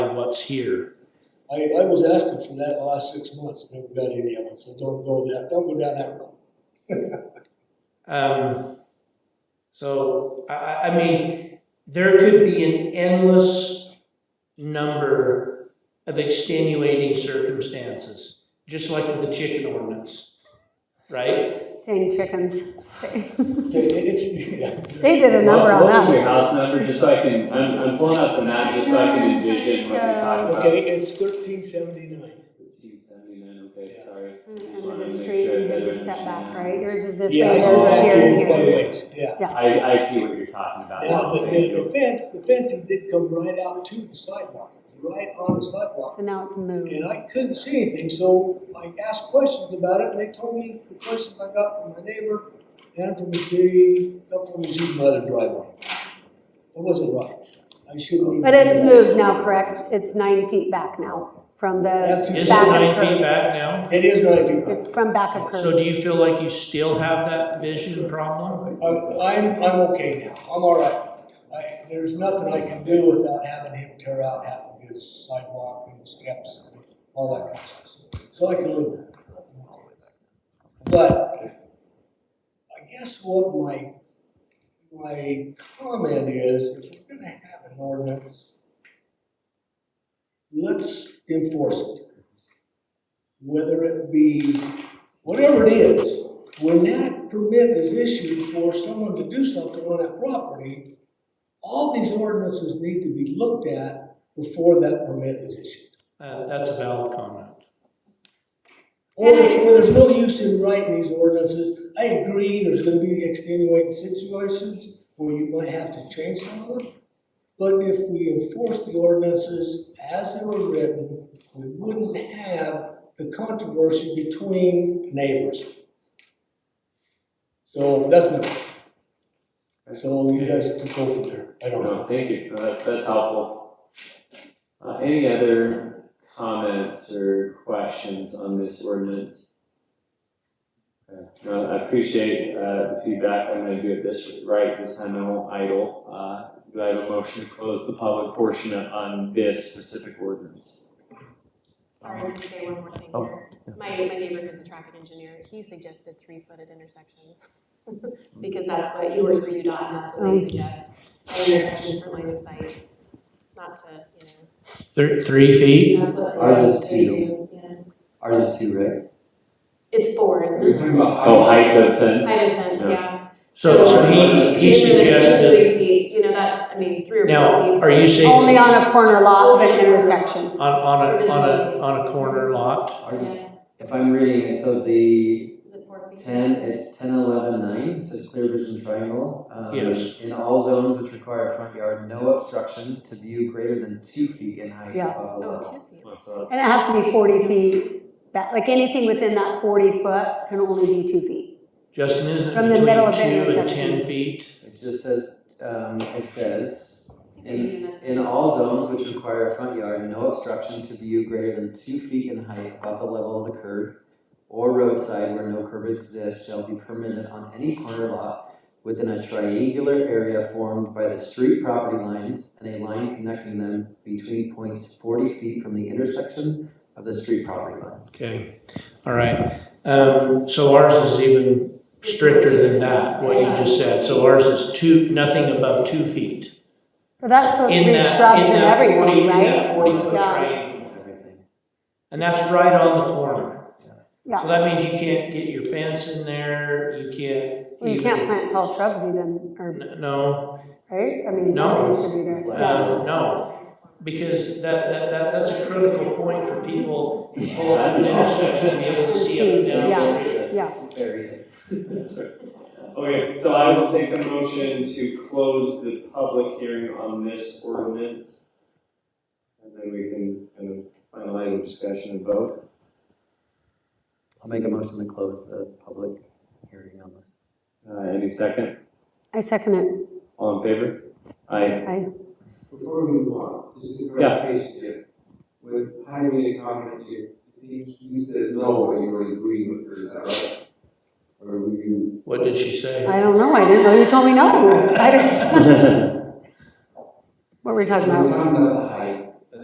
what's here. I, I was asking for that the last six months, never got any of it, so don't go that, don't go down that road. Um, so, I, I, I mean, there could be an endless number of extenuating circumstances, just like with the chicken ordinance, right? Dang chickens. So it- it's, yeah. They did a number What- on What was your us. house number, just so I can, I'm, I'm pulling up the map, just so I can envision what you're talking about. Okay, it's thirteen seventy-nine. Fifteen seventy-nine, okay, Yeah. sorry. Just End of wanted to the make street, sure that yours is everything's setback, in. right? Yours is this way, Yeah, yours it's is saw that here and too, here. but- yeah. I, I see what you're talking about. Now, now, the, thank the you. the fence, the fencing did come right out to the sidewalk, It was right on the sidewalk. And now it's moved. And I couldn't see anything, so I asked questions about it, and they told me the questions I got from my neighbor and from the city, a couple of these by the driveway. That wasn't right. I shouldn't even. But it's moved now, correct? It's nine feet back now from the Is Is it back of nine her- feet back now? It is nine feet back. From back of So curb. do you feel like you still have that vision problem? I'm, I'm, I'm okay now, I'm all right. I, there's nothing I can do without having him tear out half of his sidewalk and steps and all that kind of stuff. So I can live with it. But I guess what my, my comment is, if we're gonna have an ordinance, let's enforce it. Whether it be, whatever it is, when that permit is issued for someone to do something on that property, all these ordinances need to be looked at before that permit is issued. Uh, that's a valid comment. Or there's, or there's no use in writing these ordinances. I agree, there's gonna be extenuating situations where you might have to change some of them. But if we enforce the ordinances as they were written, we wouldn't have the controversy between neighbors. So that's my, so you guys can go from there. I don't know. No, Oh, thank you, No, that, that's helpful. Uh, any other comments or questions on this ordinance? Uh, No, I appreciate, uh, the feedback, I'm gonna do it this, right, this time I won't idle, uh, do I have a motion to close the public portion on this specific ordinance? Sorry, just to say one more thing Oh, here. My, my neighbor who's a traffic engineer, he suggested three-footed intersections. Because that's what, he works for UDOT, and that's what Oh. they suggest, intersections for line of sight, not to, you Three, three feet? know. that's what- Ours is they two. do, yeah. Ours is two, right? It's four, isn't You're it? talking about height. Oh, height of fence? High fence, Yeah. yeah. So, so he, he It's really suggested, Three feet, you know, that's, I mean, three or four feet. now, are Um, you saying Only on a corner lot of an Only on a corner intersection. lot. on, on a, on a, on a corner lot? Ours is, Yeah, if I'm reading it, so the is it four feet? ten, it's ten, eleven, nine, it says clear vision triangle. Um, Yes. In all zones which require a front yard, no obstruction to view greater than two feet in height Yeah. above the level. Oh, two feet. Oh, uh, so And it has to be forty feet back, like anything within that forty foot can only be two feet. Justin, isn't From it the middle between of the two and intersection. ten feet? It just says, um, it says, I think we do that. in all zones which require a front yard, no obstruction to view greater than two feet in height above the level of the curb or roadside where no curb exists shall be permitted on any corner lot within a triangular area formed by the street property lines and a line connecting them between points forty feet from the intersection of the street property lines. Okay, all right. Um, so ours is even stricter than that, what you just said. So ours is two, nothing above two feet. But that's supposed to In be that, shrubs in and that forty, in everything, that right? forty foot Yeah. triangle. Everything. And that's right on the corner. So Yeah, that means you can't get your fence in there, you can't. well, you even- can't plant tall shrubs even, or, N- No, right? I mean, No. nothing should be there. Yeah. uh, no, because that, that, that, that's a critical point for people who pull up to an intersection, be able to see up and down the Yeah. street. Yeah, Very good. That's right. Okay, so I will take a motion to close the public hearing on this ordinance. And then we can kind of finalize the discussion and vote. I'll make a motion to close the public hearing on this. Uh, any second? I second it. All in favor? Aye. Before we move on, just a clarification here. When Heidi made a comment, you, you think you said no, but you were agreeing with her, is that right? Or were you? What did she say? I don't know, I didn't know you told me no. I didn't, Well, what were you talking We're about? talking about the